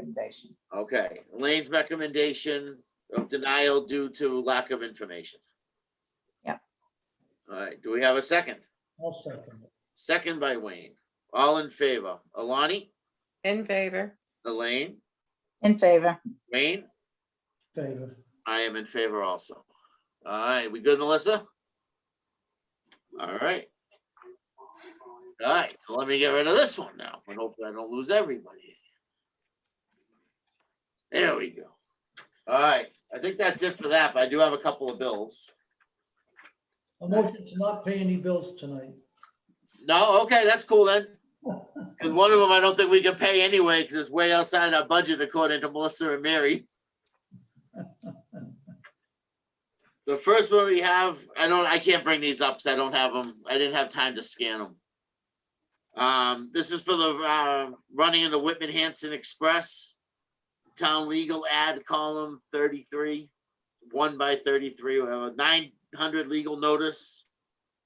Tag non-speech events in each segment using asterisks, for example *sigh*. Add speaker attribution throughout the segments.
Speaker 1: recommendation.
Speaker 2: Okay, Elaine's recommendation of denial due to lack of information.
Speaker 1: Yeah.
Speaker 2: All right, do we have a second?
Speaker 3: I'll second it.
Speaker 2: Second by Wayne. All in favor? Alani,
Speaker 4: In favor.
Speaker 2: Elaine,
Speaker 1: In favor?
Speaker 2: Wayne?
Speaker 3: Favor.
Speaker 2: I am in favor also. All right, we good, Melissa? All right. All right, so let me get rid of this one now, and hopefully I don't lose everybody. There we go. All right, I think that's it for that, but I do have a couple of bills.
Speaker 3: A motion to not pay any bills tonight.
Speaker 2: No, okay, that's cool then. Because one of them I don't think we can pay anyway, because it's way outside our budget according to Melissa and Mary. The first one we have, I don't, I can't bring these up, because I don't have them, I didn't have time to scan them. Um, this is for the, uh, running in the Whitman Hanson Express. Town legal ad column thirty-three, one by thirty-three, whatever, nine hundred legal notice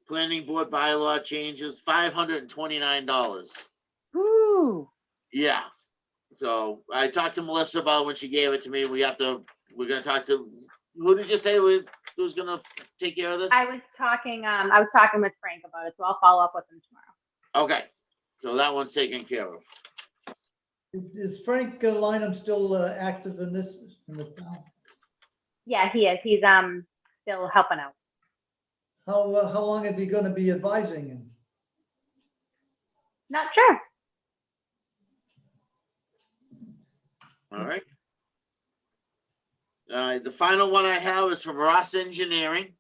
Speaker 2: planning board bylaw changes, five hundred and twenty-nine dollars.
Speaker 4: Woo.
Speaker 2: Yeah. So I talked to Melissa about when she gave it to me. We have to, we're gonna talk to, who did you say we, who's gonna take care of this?
Speaker 5: I was talking, um, I was talking with Frank about it, so I'll follow up with him tomorrow.
Speaker 2: Okay, so that one's taken care of.
Speaker 3: Is Frank Lineham still uh, active in this, in the town?
Speaker 5: Yeah, he is. He's, um, still helping out.
Speaker 3: How, uh, how long is he going to be advising him?
Speaker 5: Not sure.
Speaker 2: All right. Uh, the final one I have is from Ross Engineering.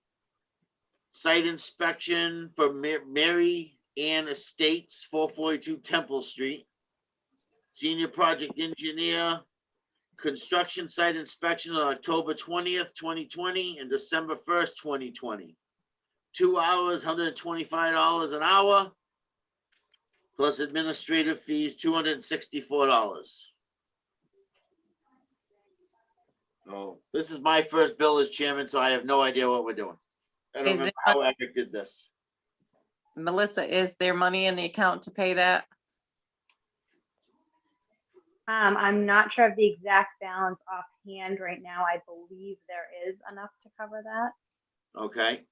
Speaker 2: Site inspection for Ma- Mary Ann Estates, four forty-two Temple Street. Senior project engineer, construction site inspection on October twentieth, twenty twenty and December first, twenty twenty. Two hours, hundred and twenty-five dollars an hour. Plus administrative fees, two hundred and sixty-four dollars. Oh, this is my first bill as chairman, so I have no idea what we're doing. I don't
Speaker 4: Is
Speaker 2: remember
Speaker 4: there-
Speaker 2: how Eric did this.
Speaker 4: Melissa, is there money in the account to pay that?
Speaker 5: Um, I'm not sure of the exact balance offhand right now. I believe there is enough to cover that.
Speaker 2: Okay,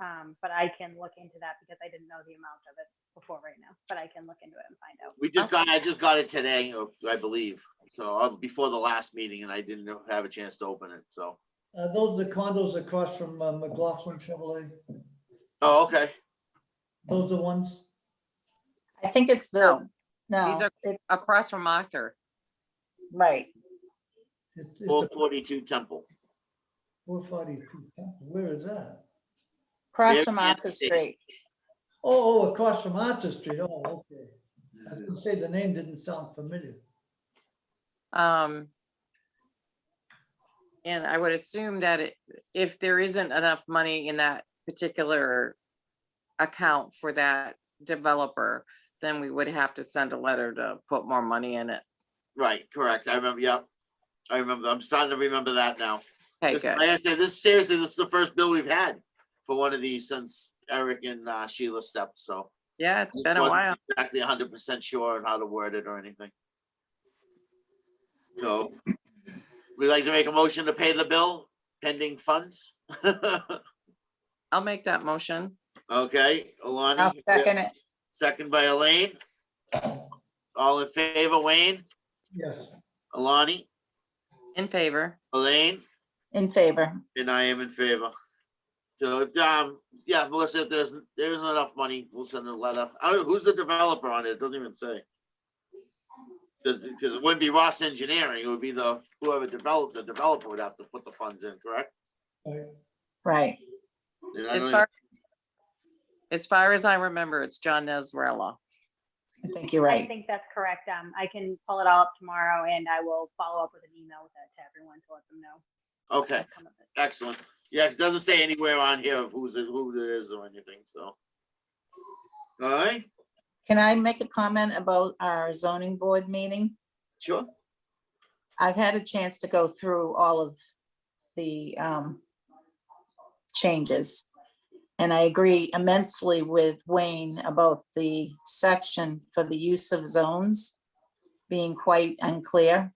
Speaker 5: Um, but I can look into that because I didn't know the amount of it before right now, but I can look into it and find out.
Speaker 2: we just got, I just got it today, or I believe, so uh, before the last meeting, and I didn't know- have a chance to open it, so.
Speaker 3: Uh, Those are the condos across from uh, McLaughlin Chevrolet.
Speaker 2: Oh, okay,
Speaker 3: Those are the ones?
Speaker 1: I think it's
Speaker 4: No,
Speaker 1: the, no,
Speaker 4: are-
Speaker 1: it-
Speaker 4: Across from Arthur.
Speaker 1: right.
Speaker 3: It's-
Speaker 2: four
Speaker 3: it's
Speaker 2: forty-two Temple.
Speaker 3: Four forty-two. Where is that?
Speaker 1: Across
Speaker 2: Mary
Speaker 1: from
Speaker 2: Ann
Speaker 1: Arthur
Speaker 2: Estate.
Speaker 1: Street.
Speaker 3: Oh, oh, across from Arthur Street. Oh, okay. I was gonna say the name didn't sound familiar.
Speaker 4: Um. And I would assume that it- if there isn't enough money in that particular account for that developer, then we would have to send a letter to put more money in it.
Speaker 2: Right, correct, I remember, yeah, I remember, I'm starting to remember that now.
Speaker 4: Okay,
Speaker 2: This-
Speaker 4: good.
Speaker 2: Like I said, this seriously, this is the first bill we've had for one of these since Eric and uh, Sheila stepped, so.
Speaker 4: Yeah, it's
Speaker 2: It
Speaker 4: been a
Speaker 2: wasn't
Speaker 4: while.
Speaker 2: Exactly hundred percent sure on how to word it or anything. So we'd like to make a motion to pay the bill pending funds. *laughs*
Speaker 4: I'll make that motion.
Speaker 2: Okay, Alani.
Speaker 1: I'll second it.
Speaker 2: Second by Elaine. All in favor, Wayne,
Speaker 3: Yes.
Speaker 2: Alani,
Speaker 4: In favor.
Speaker 2: Elaine,
Speaker 1: In favor?
Speaker 2: and I am in favor. So if, um, yeah, Melissa, if there's, there isn't enough money, we'll send a letter. I don't, who's the developer on it? It doesn't even say. Cause, 'cause it wouldn't be Ross Engineering, it would be the, whoever developed, the developer would have to put the funds in, correct?
Speaker 1: Right.
Speaker 2: And I
Speaker 4: As
Speaker 2: don't
Speaker 4: far, as far as I remember, it's John Nesrela.
Speaker 1: I think you're
Speaker 5: I
Speaker 1: right.
Speaker 5: think that's correct. Um, I can pull it all up tomorrow and I will follow up with an email with that to everyone to let them know.
Speaker 2: even- Okay,
Speaker 5: some of it.
Speaker 2: excellent. Yeah, 'cause it doesn't say anywhere on here of who's, it- who it is or anything, so. All right,
Speaker 1: Can I make a comment about our zoning board meeting?
Speaker 2: sure.
Speaker 1: I've had a chance to go through all of the um, changes. And I agree immensely with Wayne about the section for the use of zones being quite unclear.